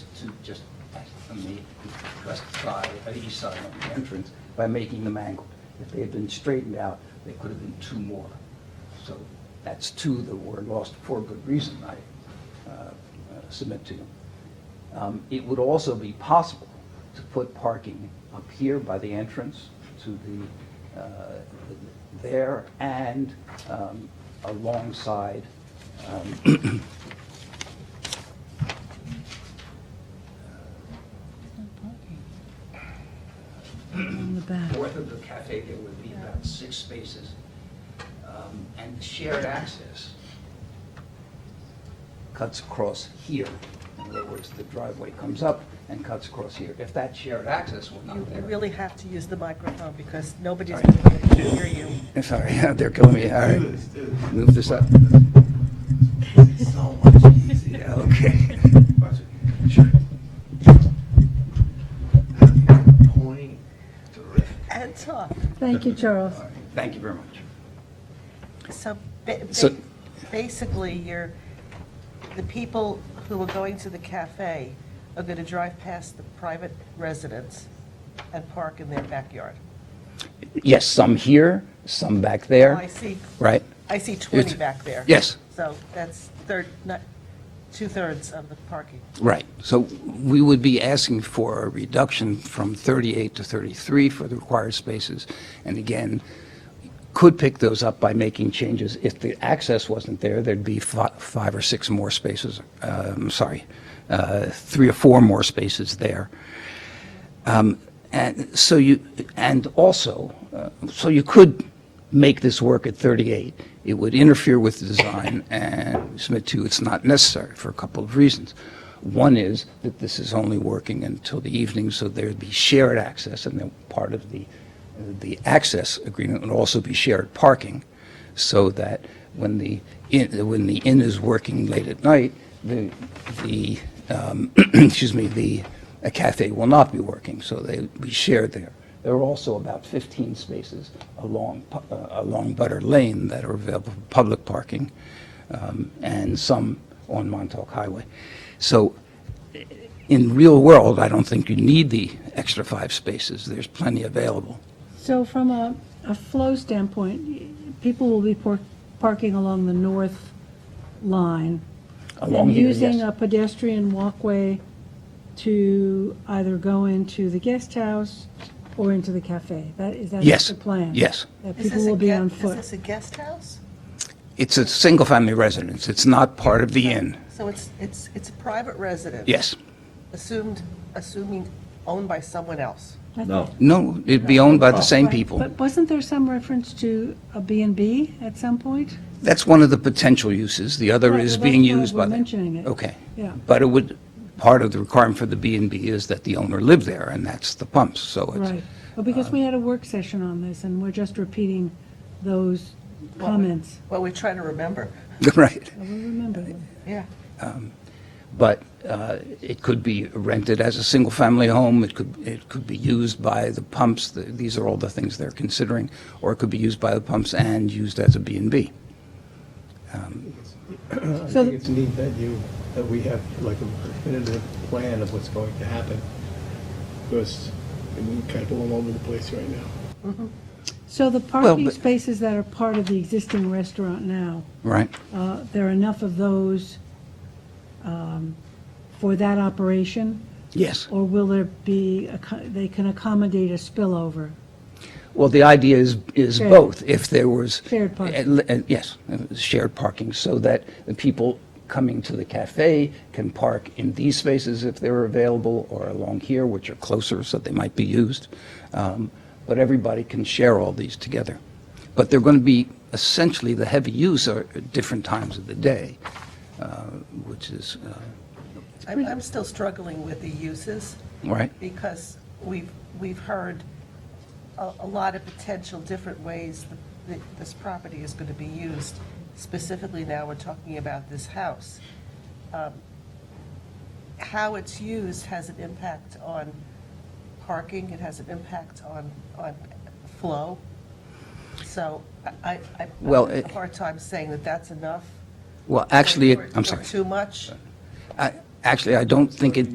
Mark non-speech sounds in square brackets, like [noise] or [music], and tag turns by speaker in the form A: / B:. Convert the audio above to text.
A: just on the west side, uh, east side of the entrance by making them angled. If they had been straightened out, there could have been two more. So that's two that were lost for good reason, I uh, uh, submit to you. Um, It would also be possible to put parking up here by the entrance to the, uh, there and um, alongside um,
B: On the back.
A: north of the cafe, there would be about six spaces. um, And shared access cuts across here. In other words, the driveway comes up and cuts across here. If that shared access were
C: You
A: not
C: you
A: there.
C: really have to use the microphone because nobody's
A: Sorry.
C: going to hear you.
A: I'm [laughs] sorry, [laughs] they're killing me, all right. Move this up.
D: So much easier.
A: Yeah, [laughs] okay.
D: Watch it. Point, terrific.
C: And talk.
B: Thank you, Charles.
A: All right, Thank you very much.
C: So ba-
A: So-
C: ba- basically, you're, the people who are going to the cafe are going to drive past the private residence and park in their backyard.
A: Yes, some here, some back there.
C: Oh, I see,
A: Right?
C: I see 20
A: It's-
C: back there.
A: yes.
C: So that's third, not, two-thirds of the parking.
A: Right. So we would be asking for a reduction from 38 to 33 for the required spaces. And again, could pick those up by making changes. If the access wasn't there, there'd be fi- five or six more spaces, um, sorry, uh, three or four more spaces there. Um, And so you, and also, uh, so you could make this work at 38. It would interfere with the design and submit to, you it's not necessary for a couple of reasons. One is that this is only working until the evening, so there'd be shared access, and then part of the, the access agreement would also be shared parking, so that when the, inn- when the inn is working late at night, the, the, um, [clears throat] excuse me, the a cafe will not be working, so they will be shared there. There are also about 15 spaces along, Pu- uh, along Butter Lane that are available for public parking, um, and some on Montauk Highway. So i- in real world, I don't think you need the extra five spaces. There's plenty available.
B: So from a, a flow standpoint, people will be por- parking along the north line.
A: Along here, yes.
B: And using a pedestrian walkway to either go into the guest house or into the cafe. That, is that
A: Yes,
B: the plan?
A: yes.
B: That
C: Is
B: people
C: this a
B: will be
C: gue-
B: on
C: Is this
B: foot.
C: a guest house?
A: It's a single-family residence. It's not part of the inn.
C: So it's, it's, it's a private residence?
A: Yes.
C: Assumed, assuming owned by someone else.
E: No.
A: No, it'd be owned by the same
B: Right,
A: people.
B: But wasn't there some reference to a B and B at some point?
A: That's one of the potential uses. The other
B: Right,
A: is
B: well, that's
A: being
B: why
A: used by Oh,
B: we're
A: the...
B: mentioning it.
A: Okay.
B: Yeah.
A: But it would, part of the requirement for the B and B is that the owner live there, and that's the pumps, so
B: Right,
A: it's...
B: well, because we had a work session on this, and we're just repeating those comments.
C: Well, we try to remember,
A: [laughs] Right.
B: I will remember them.
C: yeah.
A: But uh, it could be rented as a single-family home, it could, it could be used by the pumps, th- these are all the things they're considering, or it could be used by the pumps and used as a B and B.
F: I
B: So
F: think it's neat that you, that we have like a definitive plan of what's going to happen, because we're kind of all over the place right now.
B: So the parking
A: but-
B: spaces that are part of the existing restaurant now,
A: Right?
B: uh, there are enough of those um, for that operation?
A: Yes.
B: Or will there be, acco- they can accommodate a spillover?
A: Well, the idea is, is
B: Shared.
A: both. If there was.
B: Shared parking.
A: Uh, uh, Yes, uh, shared parking, so that the people coming to the cafe can park in these spaces if they're available, or along here, which are closer, so they might be used. Um, But everybody can share all these together. But they're going to be, essentially, the heavy use are at different times of the day, uh, which is, uh,
C: I'm, I'm still struggling with the uses
A: right?
C: because we've, we've heard a, a lot of potential different ways that this property is going to be used. Specifically now, we're talking about this house. Um, How it's used has an impact on parking, it has an impact on, on flow. So I, I,
A: Well,
C: I have
A: it-
C: a hard time saying that that's enough.
A: Well, actually, it-
C: or-
A: I'm
C: or
A: sorry.
C: Too much.
A: I- Actually, I don't think it